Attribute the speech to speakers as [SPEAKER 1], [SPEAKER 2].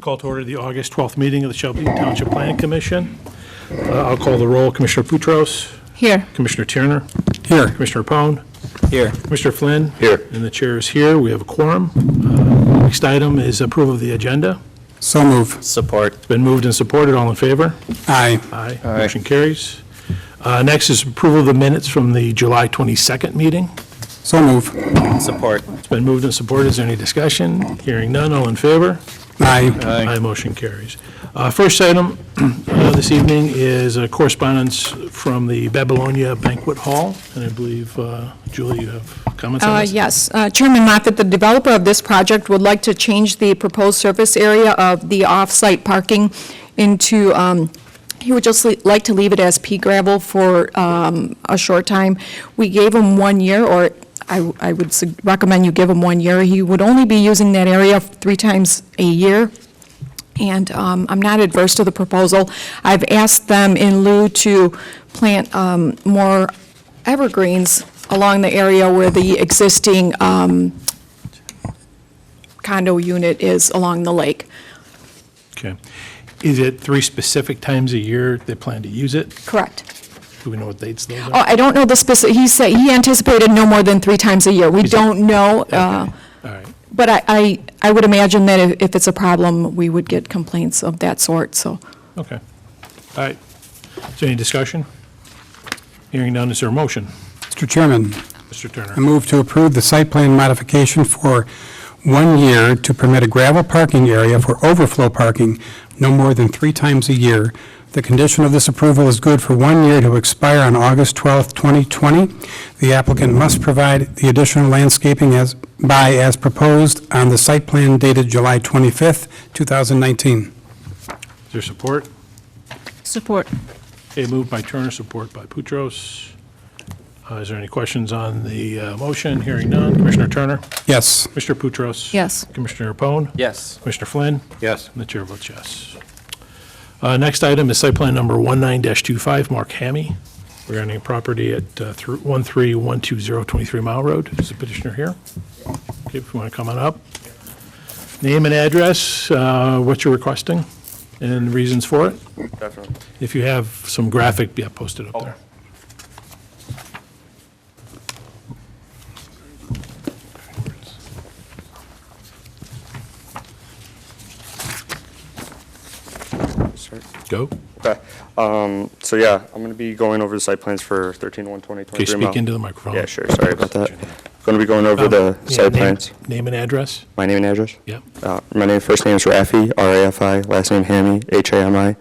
[SPEAKER 1] Call to order the August 12th meeting of the Shelby Township Planning Commission. Uh, I'll call the roll. Commissioner Futros,
[SPEAKER 2] Here.
[SPEAKER 1] Commissioner Tierner. Here. Commissioner Pone.
[SPEAKER 3] Here.
[SPEAKER 1] Commissioner Flynn.
[SPEAKER 3] Here.
[SPEAKER 1] And the chair is here. We have a quorum. Uh, Next item is approval of the agenda.
[SPEAKER 4] So move.
[SPEAKER 3] Support.
[SPEAKER 1] It's been moved and supported. All in favor?
[SPEAKER 4] Aye.
[SPEAKER 1] Aye. Motion carries. Uh, Next is approval of the minutes from the July 22nd meeting.
[SPEAKER 4] So move.
[SPEAKER 3] Support.
[SPEAKER 1] It's been moved and supported. Is there any discussion? Hearing none. All in favor?
[SPEAKER 4] Aye.
[SPEAKER 3] Aye.
[SPEAKER 1] My motion carries. Uh, First item uh, this evening is a correspondence from the Babylonia Banquet Hall, and I believe, uh, Julie, you have comments on
[SPEAKER 2] Uh,
[SPEAKER 1] this?
[SPEAKER 2] Yes. Uh, Chairman Moffett, the developer of this project would like to change the proposed surface area of the off-site parking into, um, he would just li- like to leave it as pea gravel for um, a short time. We gave him one year, or I I would sug- recommend you give him one year. He would only be using that area three times a year. And um, I'm not adverse to the proposal. I've asked them in lieu to plant um, more evergreens along the area where the existing um, condo unit is along the lake.
[SPEAKER 1] Okay. Is it three specific times a year they plan to use it?
[SPEAKER 2] Correct.
[SPEAKER 1] Do we know what dates those
[SPEAKER 2] Oh,
[SPEAKER 1] are?
[SPEAKER 2] I don't know the specific, he said, he anticipated no more than three times a year. We
[SPEAKER 1] Is it-
[SPEAKER 2] don't know, uh,
[SPEAKER 1] Okay. All right.
[SPEAKER 2] but I- I, I would imagine that if- if it's a problem, we would get complaints of that sort, so.
[SPEAKER 1] Okay. All right. Is there any discussion? Hearing none, is there a motion?
[SPEAKER 4] Mr. Chairman,
[SPEAKER 1] Mr.
[SPEAKER 4] I
[SPEAKER 1] Turner?
[SPEAKER 4] move to approve the site plan modification for one year to permit a gravel parking area for overflow parking no more than three times a year. The condition of this approval is good for one year to expire on August 12th, 2020. The applicant must provide the additional landscaping as, by as proposed on the site plan dated July 25th, 2019.
[SPEAKER 1] Is there support?
[SPEAKER 5] Support.
[SPEAKER 1] Okay, moved by Turner, support by Boutros. Uh, Is there any questions on the uh, motion? Hearing none. Commissioner Turner?
[SPEAKER 4] Yes.
[SPEAKER 1] Mr. Boutros?
[SPEAKER 5] Yes.
[SPEAKER 1] Commissioner Pone?
[SPEAKER 3] Yes.
[SPEAKER 1] Commissioner Flynn?
[SPEAKER 3] Yes.
[SPEAKER 1] And the chair votes yes. Uh, Next item is site plan number 19-25, Mark Hammy, regarding a property at uh, thr- 13120 23 Mile Road. Is the petitioner here? Okay, if you want to come on up. Name and address, uh, what you're requesting, and reasons for it.
[SPEAKER 6] Definitely.
[SPEAKER 1] If you have some graphic, yeah, post it up there. Go.
[SPEAKER 6] Okay, um, so yeah, I'm gonna be going over the site plans for thirteen one twenty
[SPEAKER 1] Okay,
[SPEAKER 6] twenty-three
[SPEAKER 1] speak into
[SPEAKER 6] mile.
[SPEAKER 1] the microphone.
[SPEAKER 6] Yeah, sure, sorry about that. Gonna be going over the
[SPEAKER 1] Um, yeah,
[SPEAKER 6] site
[SPEAKER 1] name-
[SPEAKER 6] plans.
[SPEAKER 1] Name and address?
[SPEAKER 6] My name and address?
[SPEAKER 1] Yep.
[SPEAKER 6] Uh, my name, first name is Rafi, R-A-F-I, last name Hammy, H-A-M-I.